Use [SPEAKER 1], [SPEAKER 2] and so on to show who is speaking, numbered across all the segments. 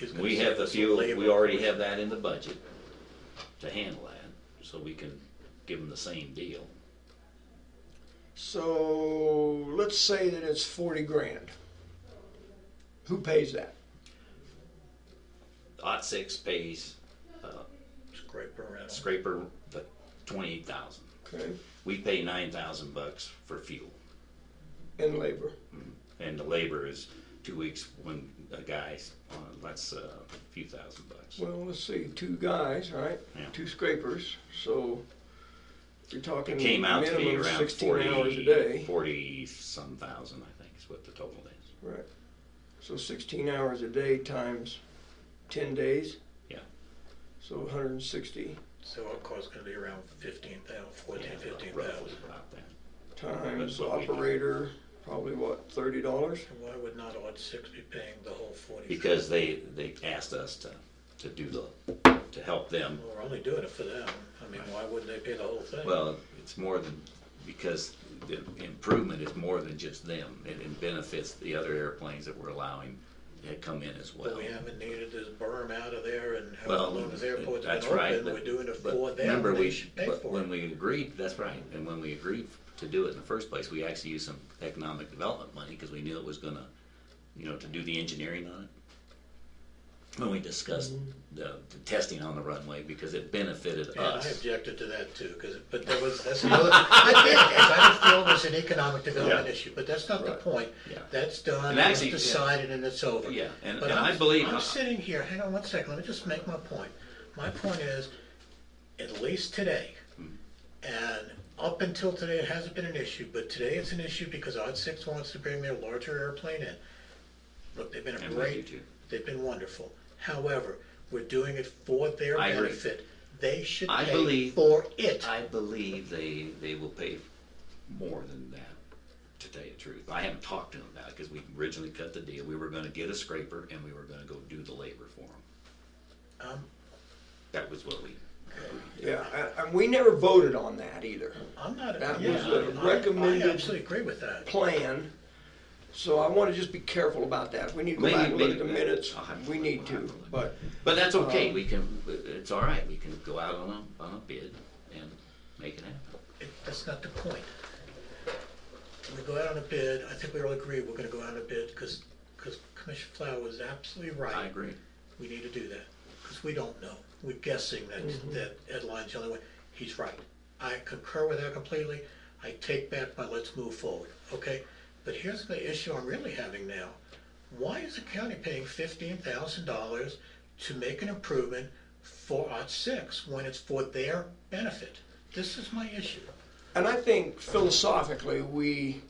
[SPEAKER 1] is gonna
[SPEAKER 2] We have the
[SPEAKER 1] surface
[SPEAKER 2] fuel,
[SPEAKER 1] labor.
[SPEAKER 2] we already have that in the budget to handle that, so we can give them the same deal.
[SPEAKER 3] So let's say that it's forty grand. Who pays that?
[SPEAKER 2] Lot six pays uh,
[SPEAKER 1] Scraper rental.
[SPEAKER 2] scraper the twenty-eight thousand.
[SPEAKER 3] Okay,
[SPEAKER 2] We pay nine thousand bucks for fuel,
[SPEAKER 3] and labor.
[SPEAKER 2] and the labor is two weeks when a guy's on, that's uh, a few thousand bucks.
[SPEAKER 3] Well, let's see, two guys, right?
[SPEAKER 2] Yeah.
[SPEAKER 3] Two scrapers. So you're talking
[SPEAKER 2] It came out to be
[SPEAKER 3] minimum
[SPEAKER 2] around
[SPEAKER 3] sixteen hours a
[SPEAKER 2] forty,
[SPEAKER 3] day,
[SPEAKER 2] forty some thousand, I think is what the total is.
[SPEAKER 3] right? So sixteen hours a day times ten days.
[SPEAKER 2] Yeah.
[SPEAKER 3] So one hundred and sixty
[SPEAKER 1] So our cost is gonna be around fifteen thousand, fourteen,
[SPEAKER 2] Yeah,
[SPEAKER 1] fifteen
[SPEAKER 2] Roughly
[SPEAKER 1] thousand.
[SPEAKER 2] about that.
[SPEAKER 3] times
[SPEAKER 2] what we do.
[SPEAKER 3] operator, probably what thirty dollars.
[SPEAKER 1] And why would not odd six be paying the whole forty?
[SPEAKER 2] Because they, they asked us to, to do the, to help them.
[SPEAKER 1] Well, We're only doing it for them. I mean, why wouldn't they pay the whole thing?
[SPEAKER 2] Well, it's more than, because the improvement is more than just them. It it benefits the other airplanes that we're allowing to come in as
[SPEAKER 1] But
[SPEAKER 2] well.
[SPEAKER 1] we haven't needed this berm out of there and however
[SPEAKER 2] Well,
[SPEAKER 1] long this airport's been
[SPEAKER 2] that's right.
[SPEAKER 1] open,
[SPEAKER 2] but-
[SPEAKER 1] we're doing it
[SPEAKER 2] but
[SPEAKER 1] for them,
[SPEAKER 2] Remember,
[SPEAKER 1] and they
[SPEAKER 2] we,
[SPEAKER 1] should pay
[SPEAKER 2] but
[SPEAKER 1] for
[SPEAKER 2] when
[SPEAKER 1] it.
[SPEAKER 2] we agreed, that's right, and when we agreed to do it in the first place, we actually used some economic development money, because we knew it was gonna, you know, to do the engineering on it. When we discussed the, the testing on the runway, because it benefited
[SPEAKER 1] And I
[SPEAKER 2] us.
[SPEAKER 1] objected to that too, because, but that was, that's the other, I didn't feel it was an economic development
[SPEAKER 2] Yeah.
[SPEAKER 1] issue, but that's not the
[SPEAKER 3] Right.
[SPEAKER 1] point.
[SPEAKER 2] Yeah.
[SPEAKER 1] That's done,
[SPEAKER 2] And
[SPEAKER 1] it's
[SPEAKER 2] actually, yeah.
[SPEAKER 1] decided and it's over.
[SPEAKER 2] Yeah, and-
[SPEAKER 1] But
[SPEAKER 2] and I
[SPEAKER 1] I'm-
[SPEAKER 2] believe-
[SPEAKER 1] I'm sitting here, hang on one second, let me just make my point. My point is, at least today,
[SPEAKER 2] Hmm.
[SPEAKER 1] and up until today, it hasn't been an issue, but today it's an issue because Odd Six wants to bring their larger airplane in. Look, they've been a
[SPEAKER 2] And we do
[SPEAKER 1] great,
[SPEAKER 2] too.
[SPEAKER 1] they've been wonderful. However, we're doing it for their
[SPEAKER 2] I agree.
[SPEAKER 1] benefit. They should
[SPEAKER 2] I
[SPEAKER 1] pay
[SPEAKER 2] believe-
[SPEAKER 1] for it.
[SPEAKER 2] I believe they, they will pay more than that, to tell you the truth. I haven't talked to them about it, because we originally cut the deal. We were gonna get a scraper, and we were gonna go do the labor for them.
[SPEAKER 1] Um,
[SPEAKER 2] That was what we
[SPEAKER 3] Yeah, and- and we never voted on that either.
[SPEAKER 1] I'm not,
[SPEAKER 3] That
[SPEAKER 1] yeah,
[SPEAKER 3] was a
[SPEAKER 1] I-
[SPEAKER 3] recommended-
[SPEAKER 1] I absolutely agree with that.
[SPEAKER 3] plan. So I want to just be careful about that. We need to go back and look at the
[SPEAKER 2] Maybe- maybe-
[SPEAKER 3] minutes.
[SPEAKER 2] I'll have to
[SPEAKER 3] We
[SPEAKER 2] look.
[SPEAKER 3] need
[SPEAKER 2] I'll have
[SPEAKER 3] to,
[SPEAKER 2] to look.
[SPEAKER 3] but
[SPEAKER 2] But that's okay, we can, it's all right, we can go out on a, on a bid and make it happen.
[SPEAKER 1] It- That's not the point. We go out on a bid, I think we all agree we're gonna go out on a bid, because, because Commissioner Flower was absolutely right.
[SPEAKER 2] I agree.
[SPEAKER 1] We need to do that, because we don't know. We're guessing that, that Ed Lyon's the only one. He's right. I concur with that completely. I take back my let's move forward, okay? But here's the issue I'm really having now. Why is the county paying fifteen thousand dollars to make an improvement for Art Six when it's for their benefit? This is my issue.
[SPEAKER 3] and I think philosophically we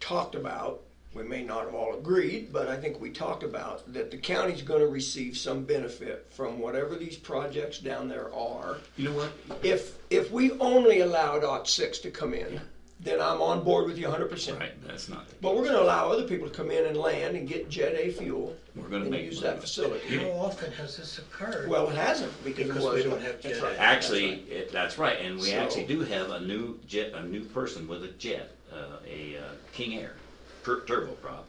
[SPEAKER 3] talked about. We may not have all agreed, but I think we talked about that the county's going to receive some benefit from whatever these projects down there are.
[SPEAKER 2] You know what?
[SPEAKER 3] If if we only allowed OT six to come in, then I'm on board with you 100. percent
[SPEAKER 2] Right, that's not,
[SPEAKER 3] But we're going to allow other people to come in and land and get Jet A fuel
[SPEAKER 2] We're gonna
[SPEAKER 3] and
[SPEAKER 2] make
[SPEAKER 3] use
[SPEAKER 2] money.
[SPEAKER 3] that facility.
[SPEAKER 1] How often has this occurred?
[SPEAKER 3] Well, it hasn't because, it
[SPEAKER 1] Because we
[SPEAKER 3] wasn't.
[SPEAKER 1] don't have
[SPEAKER 3] That's
[SPEAKER 1] Jet
[SPEAKER 3] right.
[SPEAKER 1] A.
[SPEAKER 2] actually, it- that's right, and we
[SPEAKER 3] So-
[SPEAKER 2] actually do have a new jet, a new person with a jet, uh, a uh, King Air tur- turboprop,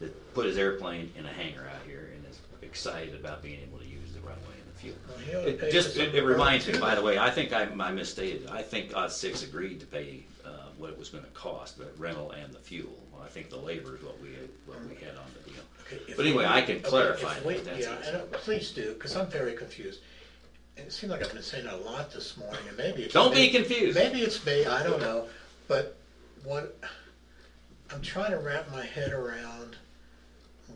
[SPEAKER 2] that put his airplane in a hangar out here and is excited about being able to use the runway and the fuel.
[SPEAKER 1] Well, he ought to pay
[SPEAKER 2] It
[SPEAKER 1] for
[SPEAKER 2] just, it-
[SPEAKER 1] something
[SPEAKER 2] it reminds me,
[SPEAKER 1] too.
[SPEAKER 2] by the way, I think I, I misstated, I think Odd Six agreed to pay, uh, what it was gonna cost, the rental and the fuel. I think the labor is what we, had- what we had on the deal.
[SPEAKER 1] Okay, if
[SPEAKER 2] But anyway,
[SPEAKER 1] we-
[SPEAKER 2] I can
[SPEAKER 1] okay,
[SPEAKER 2] clarify
[SPEAKER 1] if we-
[SPEAKER 2] that, that's
[SPEAKER 1] Yeah,
[SPEAKER 2] easy.
[SPEAKER 1] and uh, please do, because I'm very confused. And it seems like I've been saying a lot this morning, and maybe it's.
[SPEAKER 2] Don't be
[SPEAKER 1] me-
[SPEAKER 2] confused.
[SPEAKER 1] Maybe it's me, I don't know, but what, I'm trying to wrap my head around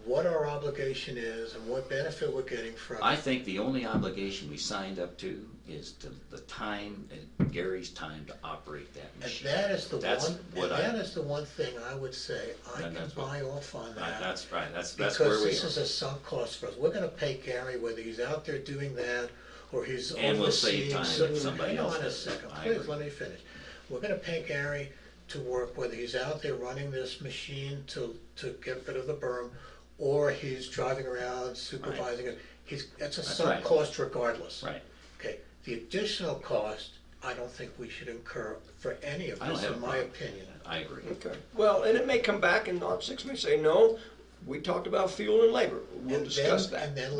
[SPEAKER 1] what our obligation is and what benefit we're getting from.
[SPEAKER 2] I
[SPEAKER 1] it.
[SPEAKER 2] think the only obligation we signed up to is to the time, and Gary's time to operate that
[SPEAKER 1] And
[SPEAKER 2] machine.
[SPEAKER 1] that is the
[SPEAKER 2] That's
[SPEAKER 1] one, and
[SPEAKER 2] what I-
[SPEAKER 1] that is the one thing I would say, I
[SPEAKER 2] And
[SPEAKER 1] can
[SPEAKER 2] that's what-
[SPEAKER 1] buy off on
[SPEAKER 2] Right,
[SPEAKER 1] that.
[SPEAKER 2] That's right, that's, that's where
[SPEAKER 1] Because
[SPEAKER 2] we
[SPEAKER 1] this is
[SPEAKER 2] are.
[SPEAKER 1] a sunk cost for us. We're gonna pay Gary whether he's out there doing that or he's
[SPEAKER 2] And we'll save
[SPEAKER 1] overseeing.
[SPEAKER 2] time
[SPEAKER 1] some-
[SPEAKER 2] if somebody else
[SPEAKER 1] Hang on a
[SPEAKER 2] does it.
[SPEAKER 1] second,
[SPEAKER 2] I
[SPEAKER 1] please,
[SPEAKER 2] agree.
[SPEAKER 1] let me finish. We're gonna pay Gary to work whether he's out there running this machine to, to get rid of the berm or he's driving around supervising it. He's, it's a sunk
[SPEAKER 2] right.
[SPEAKER 1] cost regardless.
[SPEAKER 2] Right.
[SPEAKER 1] Okay, the additional cost, I don't think we should incur for any of
[SPEAKER 2] I don't
[SPEAKER 1] this,
[SPEAKER 2] have a
[SPEAKER 1] in my
[SPEAKER 2] problem.
[SPEAKER 1] opinion.
[SPEAKER 2] I agree.
[SPEAKER 3] Okay. Well, and it may come back and not six may say, no, we talked about fuel and labor. We'll
[SPEAKER 1] And
[SPEAKER 3] discuss
[SPEAKER 1] then-
[SPEAKER 3] that.
[SPEAKER 1] And then